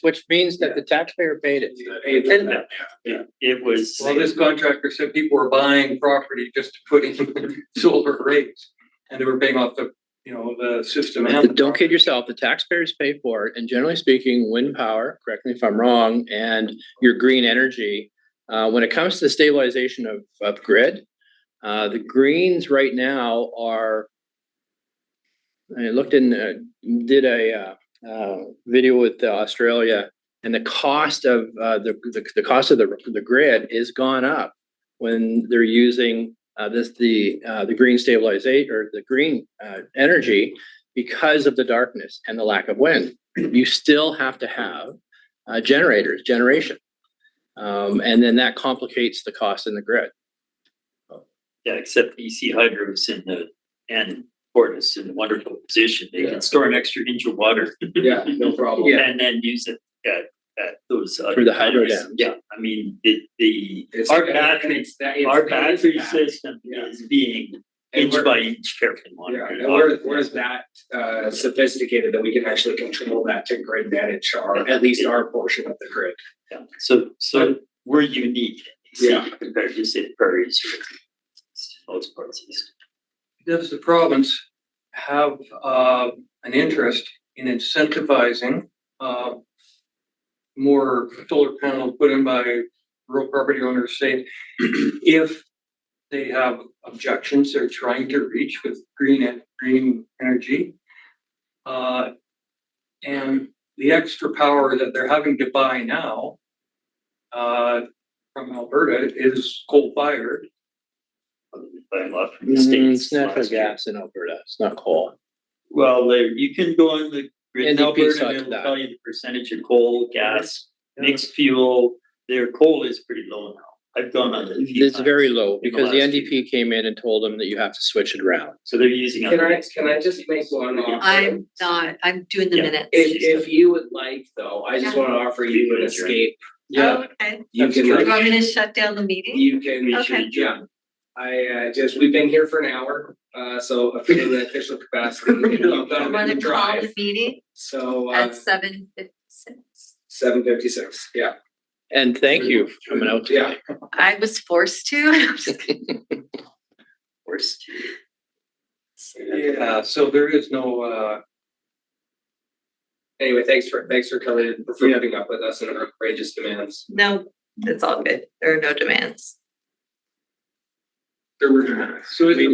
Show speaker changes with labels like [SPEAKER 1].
[SPEAKER 1] which means that the taxpayer paid it.
[SPEAKER 2] It it was.
[SPEAKER 3] Well, this contractor said people were buying property just to put in solar rates and they were paying off the, you know, the system. and the
[SPEAKER 1] Don't
[SPEAKER 3] property.
[SPEAKER 1] kid yourself, the taxpayers pay for it, and generally speaking, wind power, correct me if I'm wrong, and your green energy. Uh, when it comes to the stabilization of, of grid, uh, the greens right now are. I looked in, uh, did a, uh, uh, video with uh, Australia, and the cost of, uh, the, the, the cost of the, the grid is gone up. When they're using, uh, this, the, uh, the green stabilization, or the green, uh, energy because of the darkness and the lack of wind. You still have to have uh, generators, generation. Um, and then that complicates the cost in the grid.
[SPEAKER 2] Yeah, except EC Hydro's E in the, and Fortis in a wonderful position. They can store an extra inch of water
[SPEAKER 3] Yeah, no problem.
[SPEAKER 2] and then use it at, at those. other
[SPEAKER 1] Through the hydro
[SPEAKER 2] times.
[SPEAKER 1] dams.
[SPEAKER 2] Yeah, I mean, the, the,
[SPEAKER 4] It's-
[SPEAKER 2] our battery,
[SPEAKER 4] it's that- it's-
[SPEAKER 2] our
[SPEAKER 4] it is
[SPEAKER 2] battery
[SPEAKER 4] that.
[SPEAKER 2] system
[SPEAKER 4] Yeah.
[SPEAKER 2] is being
[SPEAKER 4] And
[SPEAKER 2] inch
[SPEAKER 4] we're-
[SPEAKER 2] by inch carefully
[SPEAKER 4] Yeah,
[SPEAKER 2] monitored.
[SPEAKER 4] and we're, we're that uh sophisticated that we can actually control that to grid manage our, at least our portion of the grid.
[SPEAKER 2] Yeah, So, so we're unique.
[SPEAKER 4] Yeah.
[SPEAKER 2] Compared to say the prairies or those parts of this.
[SPEAKER 3] Does the province have, uh, an interest in incentivizing, uh, more solar panels put in by rural property owners, say, if they have objections they're trying to reach with green, en- green energy? Uh, and the extra power that they're having to buy now, uh, from Alberta is coal-fired.
[SPEAKER 2] By law from the
[SPEAKER 1] Mm,
[SPEAKER 2] states.
[SPEAKER 1] It's natural
[SPEAKER 2] last year.
[SPEAKER 1] gas in Alberta, it's not coal.
[SPEAKER 2] Well, there, you can go on the grid in
[SPEAKER 1] NDP
[SPEAKER 2] Alberta
[SPEAKER 1] sucked
[SPEAKER 2] and it'll
[SPEAKER 1] that.
[SPEAKER 2] tell you the percentage of coal, gas,
[SPEAKER 3] Yeah.
[SPEAKER 2] mixed fuel. Their coal is pretty low now. I've gone on it. a few
[SPEAKER 1] It's very
[SPEAKER 2] times.
[SPEAKER 1] low
[SPEAKER 2] in the
[SPEAKER 1] because the
[SPEAKER 2] last
[SPEAKER 1] NDP came in and told them that you have to switch it around.
[SPEAKER 2] So they're using.
[SPEAKER 4] Can I,
[SPEAKER 2] other-
[SPEAKER 4] can I just make one offer?
[SPEAKER 5] I'm not, I'm doing the
[SPEAKER 2] Yeah.
[SPEAKER 5] minutes.
[SPEAKER 4] If if you would like though, I just
[SPEAKER 5] Yeah.
[SPEAKER 4] wanna offer you an escape.
[SPEAKER 5] Oh, Okay,
[SPEAKER 4] You
[SPEAKER 3] That's
[SPEAKER 4] can
[SPEAKER 3] true.
[SPEAKER 5] you
[SPEAKER 4] like
[SPEAKER 5] want me to shut down the meeting?
[SPEAKER 4] You can,
[SPEAKER 5] Okay.
[SPEAKER 4] yeah. I uh just, we've been here for an hour, uh so I feel in the official capacity, you know, I'm
[SPEAKER 5] I
[SPEAKER 4] done with
[SPEAKER 5] wanna
[SPEAKER 4] the
[SPEAKER 5] call the
[SPEAKER 4] drive,
[SPEAKER 5] meeting
[SPEAKER 4] so uh
[SPEAKER 5] at seven fifty-six.
[SPEAKER 4] seven fifty six, yeah.
[SPEAKER 1] And thank you for coming out today.
[SPEAKER 5] I was forced to. Forced.
[SPEAKER 3] Yeah, so there is no, uh,
[SPEAKER 4] Anyway, thanks for, thanks for coming, and for putting up with us and our outrageous demands.
[SPEAKER 5] No, it's all good. There are no demands.
[SPEAKER 4] There were demands.
[SPEAKER 3] so it's